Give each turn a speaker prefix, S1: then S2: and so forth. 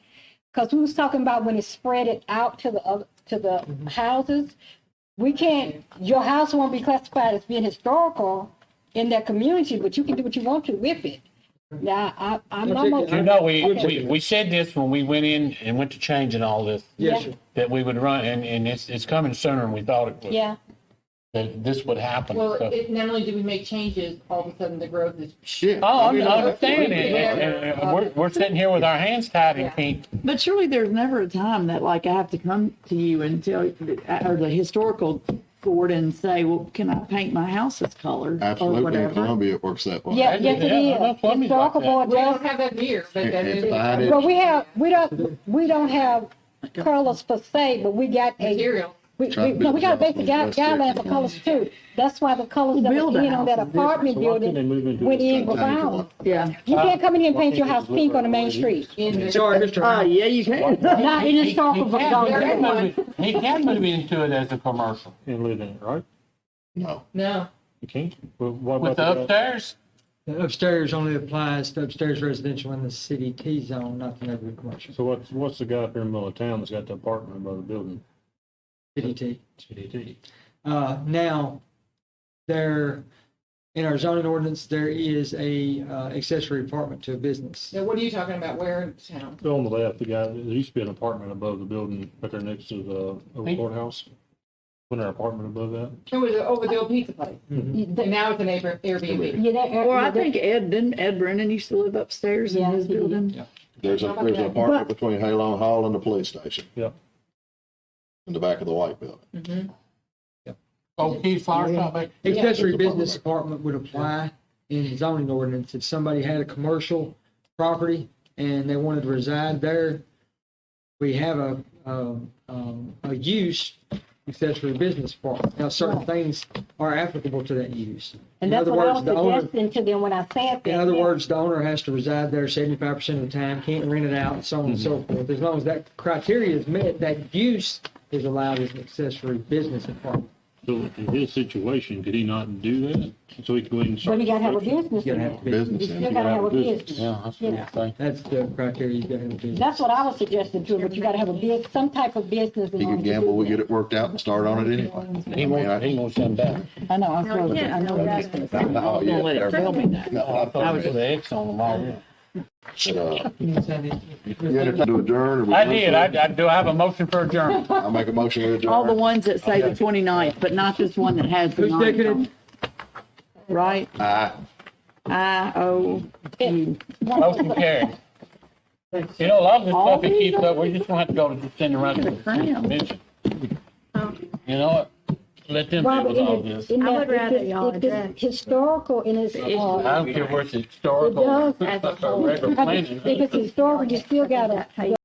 S1: Cause we was talking about when it spread it out to the other, to the
S2: Mm-hmm.
S1: houses. We can't, your house won't be classified as being historical in that community, but you can do what you want to with it. Now, I, I'm almost.
S3: You know, we, we, we said this when we went in and went to changing all this,
S1: Yes,
S3: that we would run, and, and it's, it's coming sooner than we thought it would.
S1: Yeah,
S3: That this would happen.
S4: Well,
S3: So-
S4: it, not only do we make changes, all of a sudden the growth is.
S5: Shit.
S3: Oh, I'm,
S5: You know,
S3: I
S5: that's
S3: understand
S5: what
S3: it.
S5: we-
S3: And, and- and we're, we're sitting here with our hands tied and can't,
S2: But surely there's never a time that like I have to come to you and tell, or the historical board and say, well, can I paint my house this color? or
S5: Absolutely, in
S2: whatever?"
S5: Columbia, it works that way.
S1: yeah,
S3: Well,
S1: yes it
S3: yeah, I know
S1: is.
S3: plumbing's like
S1: Historical board
S4: We
S1: does
S4: don't have that here, but that
S5: It's
S4: is.
S5: fine.
S1: Well, we have, we don't, we don't have colors per se, but we got a,
S4: Material.
S1: we, we, no, we got a basic guide- guideline for colors too. That's why the colors that
S2: Build
S1: were
S2: a
S1: in on that
S2: house is different,
S1: apartment building went in with ours.
S2: Yeah.
S1: You can't come in here and paint your house pink on the main street,
S4: in the-
S2: Uh, yeah, you can.
S1: not in
S3: He- he-
S1: historical.
S3: he can- he can
S1: zone.
S3: move it- He can move into it as a commercial.
S6: and live in it, right?
S5: No,
S4: No,
S6: You can't. Well, what
S3: With the
S6: about the-
S3: upstairs,
S7: The Upstairs only applies to upstairs residential in the city T zone, not the neighborhood commercial,
S6: So what's, what's the guy up here in the middle of town that's got the apartment above the building?
S7: city T.
S6: CDT.
S7: Uh, now, there, in our zoning ordinance, there is a uh, accessory apartment to a business.
S4: now what are you talking about? Where in town?
S6: On the left, the guy, there used to be an apartment above the building, right there next to the
S3: Hey.
S6: old courthouse. Wasn't there an apartment above that?
S4: It was over the old pizza place. And now it's an Air- Airbnb.
S1: Yeah, that-
S2: Or I
S1: yeah, that-
S2: think Ed, didn't Ed Brennan used to live upstairs in
S1: Yeah,
S2: his
S1: he did.
S2: building?
S5: there's a, there's an apartment between Halon Hall and the police station
S6: Yeah.
S5: in the back of the white building.
S3: Old Keys Flower Shop back
S7: Accessory business apartment would apply in zoning ordinance. If somebody had a commercial property and they wanted to reside there, we have a, um, um, a use accessory business apartment. Now, certain things are applicable to that use.
S1: And
S7: In
S1: that's
S7: other
S1: what I was
S7: words, the owner.
S1: suggesting to them when I said that.
S7: In other words, the owner has to reside there seventy-five percent of the time, can't rent it out, so on and so forth. As long as that criteria is met, that use is allowed as an accessory business apartment.
S6: So in his situation, could he not do that? So he could go ahead and
S1: But
S6: start.
S1: you gotta have a business.
S7: You
S1: in
S7: gotta
S1: it.
S7: have business.
S1: You
S5: Business, in
S1: still
S5: it.
S1: gotta have a
S6: business.
S1: business.
S3: Yeah, that's what I'm saying.
S7: That's the criteria you gotta have a business.
S1: That's what I was suggesting too, but you gotta have a big, some type of business. in
S5: he
S1: order
S5: could
S1: to do
S5: gamble, we
S1: that.
S5: get it worked out and start on it anyway.
S3: He wants, he wants them back.
S2: I know, I know, I know what he's gonna say. I'm
S5: No,
S2: not gonna
S5: yeah,
S2: let it
S5: they're-
S2: tell me that.
S5: No, I
S3: I
S5: thought
S3: was
S5: it
S3: with
S5: was-
S3: the X on them all.
S5: but, uh, You had
S7: Yeah,
S5: to adjourn. or we-
S3: I did, I, I, do I have a motion for adjournment?
S5: I make a motion to adjourn.
S2: All the ones that say the 29th, but not this one that has the
S7: Who's taking
S2: nine.
S7: it?
S2: Right?
S5: Aye.
S2: I O U.
S3: Motion carried. You know, a lot of this
S2: All
S3: stuff, it keeps up, we just gonna have to go to the send around to the convention. You know what? Let them deal
S1: Robert,
S3: with
S1: in
S3: all
S1: it,
S3: this.
S1: in
S8: I
S1: that,
S8: would rather y'all
S1: it's,
S8: address.
S1: it's historical and it's,
S3: I
S1: uh,
S3: don't care where it's historical,
S1: It
S3: or
S1: does
S8: as a
S3: regular
S1: if
S3: planning.
S1: it's historical, you still gotta.